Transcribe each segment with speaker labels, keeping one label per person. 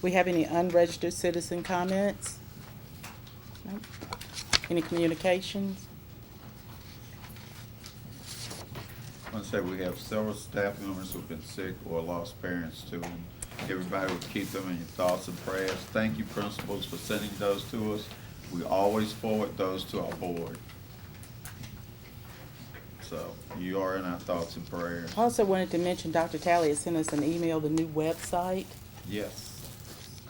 Speaker 1: We have any unregistered citizen comments? Nope. Any communications?
Speaker 2: I want to say we have several staff members who've been sick or lost parents too. and Everybody would keep them in your thoughts and prayers. Thank you, principals, for sending those to us. We always forward those to our board. So you are in our thoughts and prayers.
Speaker 1: Also wanted to mention, Dr. Talley has sent us an email, the new website.
Speaker 2: Yes.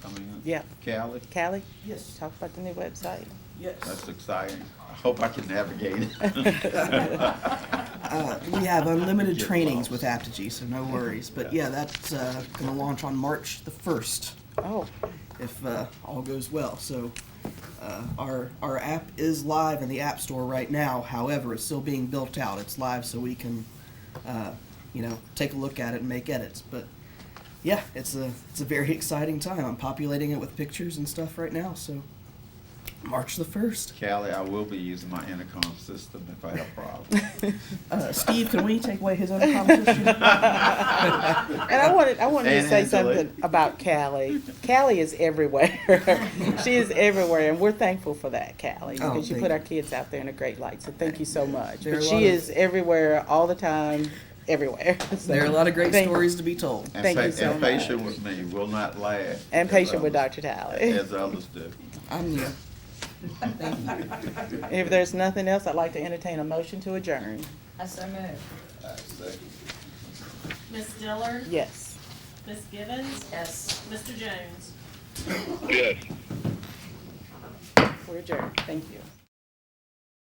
Speaker 2: Coming in.
Speaker 1: Yeah.
Speaker 2: Callie,
Speaker 1: Callie,
Speaker 3: Yes,
Speaker 1: talk about the new website.
Speaker 3: yes.
Speaker 2: that's exciting. I hope I can navigate it.
Speaker 3: Uh, We have unlimited
Speaker 2: Get
Speaker 3: trainings
Speaker 2: lost.
Speaker 3: with Apogee, so no worries. But yeah, that's uh, gonna launch on March the first,
Speaker 1: Oh,
Speaker 3: if uh, all goes well. So uh, our, our app is live in the App Store right now. However, it's still being built out. It's live so we can, uh, you know, take a look at it and make edits. But yeah, it's a, it's a very exciting time. I'm populating it with pictures and stuff right now, so March the first.
Speaker 2: Callie, I will be using my intercom system if I have problems.
Speaker 3: Uh, Steve, can we take away his own competition?
Speaker 1: and I wanted, I wanted to
Speaker 2: And
Speaker 1: say
Speaker 2: Angela.
Speaker 1: something about Callie. Callie is everywhere. She is everywhere, and we're thankful for that, Callie,
Speaker 3: Oh,
Speaker 1: because you
Speaker 3: thank
Speaker 1: put
Speaker 3: you.
Speaker 1: our kids out there in a great light, so thank you so much.
Speaker 3: There are
Speaker 1: But
Speaker 3: a
Speaker 1: she
Speaker 3: lot of-
Speaker 1: is everywhere, all the time, everywhere. So,
Speaker 3: There are a lot of great
Speaker 1: thank-
Speaker 3: stories to be told.
Speaker 2: And
Speaker 1: Thank
Speaker 2: pa-
Speaker 1: you so
Speaker 2: And patient
Speaker 1: much.
Speaker 2: with me, will not laugh.
Speaker 1: And patient with
Speaker 2: As
Speaker 1: Dr. Talley.
Speaker 2: others- As others do.
Speaker 3: I'm new.
Speaker 1: If there's nothing else, I'd like to entertain a motion to adjourn.
Speaker 4: I so move.
Speaker 5: Miss Dillard?
Speaker 1: Yes.
Speaker 5: Miss Givens?
Speaker 4: Yes.
Speaker 5: Mr. Jones?
Speaker 1: We're adjourned. Thank you.